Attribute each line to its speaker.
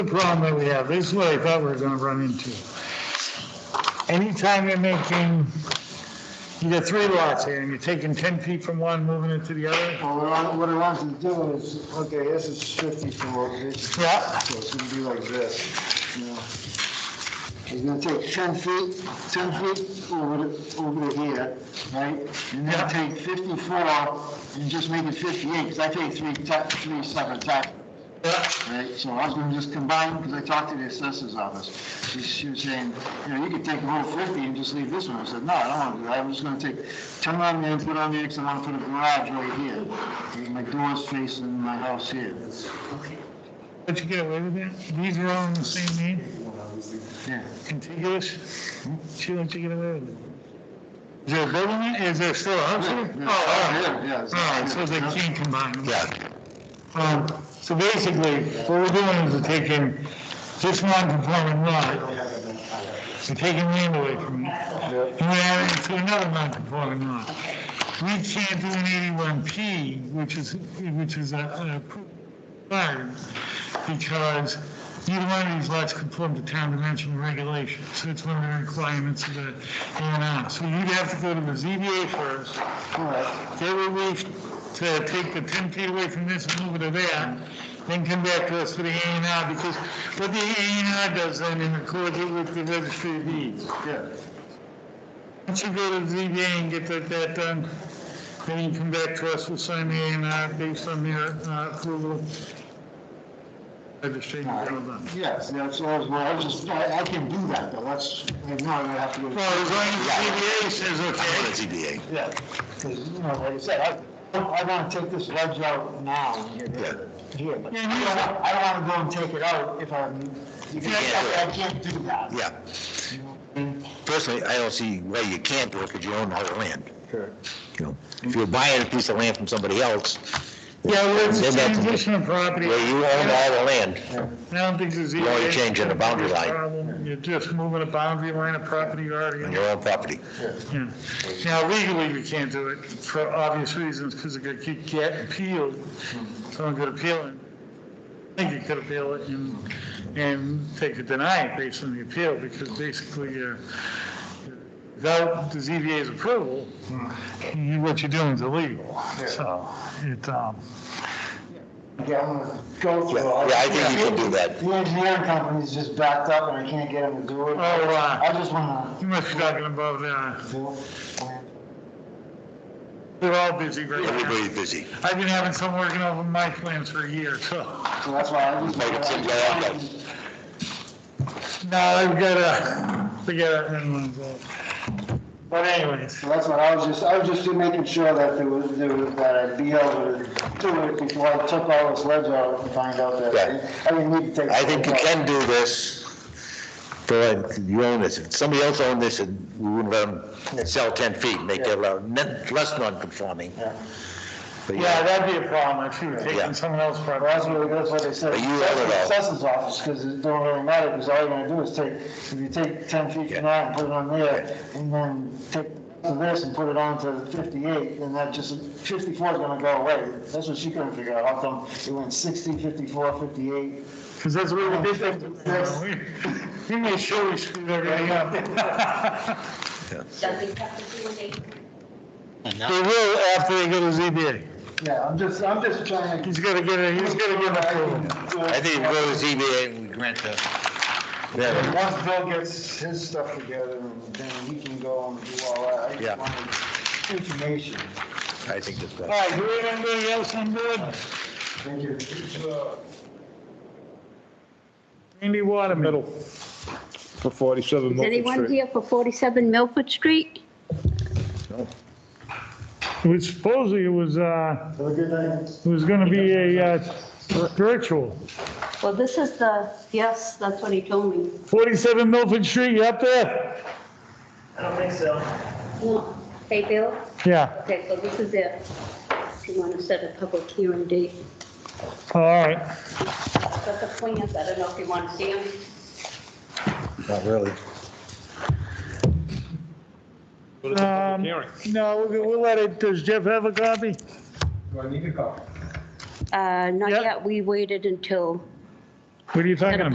Speaker 1: the problem that we have. This is what I thought we were gonna run into. Anytime you're making, you got three lots here, and you're taking 10 feet from one, moving it to the other.
Speaker 2: Well, what I, what I want to do is, okay, this is 54, this is,
Speaker 1: Yeah,
Speaker 2: so it's gonna be like this, you know. He's gonna take 10 feet, 10 feet over, to- over to here, right? And
Speaker 1: Yeah.
Speaker 2: then take 54 and just make it 58, because I take three, ta- three separate taxes.
Speaker 1: yeah,
Speaker 2: Right, so I was gonna just combine, because I talked to the assessor's office. She, she was saying, you know, you could take the whole fifty and just leave this one. I said, no, I don't wanna do that. I'm just gonna take, turn on there and put on there, because I wanna put a garage right here. My door's facing my house here.
Speaker 1: but you get away with it. These are all in the same name,
Speaker 2: Yeah,
Speaker 1: contiguous. See what you get away with it. Is there a building, there? is there still a house there?
Speaker 2: Yeah, yeah.
Speaker 1: Oh, all right.
Speaker 2: Yeah, yeah, it's-
Speaker 1: All right, so they
Speaker 2: yeah.
Speaker 1: can't combine them.
Speaker 3: Yeah,
Speaker 1: Um, So basically, what we're doing is we're taking this non-conforming lot, we're taking land away from it, and we're adding it to another non-conforming lot. We can't do an 81P, which is, which is a- an approved required, because neither one of these lots conform to town dimension regulations, so it's one of the requirements of the A and R. So you'd have to go to the ZBA first,
Speaker 2: correct.
Speaker 1: they were moved to take the 10 feet away from this and move it to there, then come back to us for the A and R, because what the A and R does then in accord with the registry of deeds.
Speaker 2: Yeah,
Speaker 1: Once you go to the ZBA and get that, that done, then you come back to us, we'll sign the A and R based on their uh, approval. Registry and all that.
Speaker 2: yes, that's always, well, I was just, I, I can do that, though. That's, right now I have to go.
Speaker 1: Well, as long as the ZBA says
Speaker 3: I'm on
Speaker 1: okay.
Speaker 3: the ZBA.
Speaker 2: Yeah, 'cause, you know, like I said, I, I wanna take this ledge out now and get rid of it here, but
Speaker 1: Yeah, you-
Speaker 2: I don't, I don't wanna go and take it out if I'm, I can't do that.
Speaker 3: Yeah. Personally, I don't see why you can't do it, because you own the whole land. You know, if you're buying a piece of land from somebody else,
Speaker 1: Yeah, well, it's a
Speaker 3: Then that's-
Speaker 1: transition property.
Speaker 3: where you own all the land,
Speaker 1: I don't think the ZBA.
Speaker 3: You're only changing the boundary line.
Speaker 1: Problem, You're just moving a boundary line of property you already
Speaker 3: on
Speaker 1: own.
Speaker 3: your own property.
Speaker 1: Yeah. Now legally, we can't do it for obvious reasons, because it could get- get appealed. Someone could appeal it. I think you could appeal it and, and they could deny it based on the appeal, because basically, you're- without the ZBA's approval, you- what you're doing is illegal. So it, um,
Speaker 2: Okay, I'm gonna go through
Speaker 3: Yeah,
Speaker 2: all.
Speaker 3: yeah, I think you can do that.
Speaker 2: The engineering company's just backed up and I can't get them to do it.
Speaker 1: Oh, wow.
Speaker 2: I just wanna
Speaker 1: you must be talking about, uh,
Speaker 2: do
Speaker 1: they're all busy right now.
Speaker 3: Everybody's busy.
Speaker 1: I've been having some working over my plans for a year, so.
Speaker 2: it, so that's why I just.
Speaker 3: Make it seem like I got-
Speaker 1: Now, I've got a, we got a, but anyways,
Speaker 2: So that's what I was just, I was just making sure that there was, there was, that I'd be able to do it before I took all this ledge out and find out that
Speaker 3: Yeah.
Speaker 2: I didn't need to take.
Speaker 3: I think you can do this, but you own this. If somebody else owned this, and we wouldn't let them sell 10 feet, and make their lot net- less non-conforming.
Speaker 2: Yeah.
Speaker 3: But
Speaker 1: yeah,
Speaker 3: yeah,
Speaker 1: that'd be a problem if you were
Speaker 3: Yeah.
Speaker 1: taking someone else's
Speaker 2: Well,
Speaker 1: property.
Speaker 2: that's what, that's what they said.
Speaker 3: But you have it all.
Speaker 2: Assessors office, because it don't really matter, because all you're gonna do is take, if you take ten feet from that and put it on there, and then take this and put it on to fifty-eight, and that just, fifty-four is gonna go away. That's what she couldn't figure out, how come it went 60, 54, 58.
Speaker 1: Because that's what we did. things. We made sure we screwed everything up.
Speaker 4: Does it have to do with a
Speaker 1: They will after they E go to ZBA.
Speaker 2: Yeah, I'm just, I'm just trying to.
Speaker 1: He's got to get it, he's got to get it.
Speaker 3: I think if you go to ZBA and we grant the, yeah,
Speaker 2: Once Bill gets his stuff together, and then he can go and do all that, I
Speaker 3: Yeah.
Speaker 2: just wanted information.
Speaker 3: I think that's
Speaker 1: All
Speaker 3: best.
Speaker 1: right, do we have anybody else on board?
Speaker 2: Thank you.
Speaker 1: Andy Waterman.
Speaker 5: for 47
Speaker 4: Is anyone
Speaker 5: Milford Street.
Speaker 4: here for 47 Milford Street?
Speaker 1: It was supposedly, it was, uh,
Speaker 2: Have a good night.
Speaker 1: it was going to be a uh, virtual.
Speaker 4: Well, this is the, yes, that's what he told me.
Speaker 1: 47 Milford Street, you up there?
Speaker 4: No. Hey, Bill?
Speaker 1: Yeah,
Speaker 4: Okay, so this is it. If you want to set a public hearing date.
Speaker 1: all right.
Speaker 4: But the plans, I don't know if you want to see them.
Speaker 3: Not really.
Speaker 1: Um, No, we'll we'll let it, does Jeff have a copy?
Speaker 4: Uh, Not
Speaker 1: Yep.
Speaker 4: Uh, yet, we waited until
Speaker 1: What are you talking about?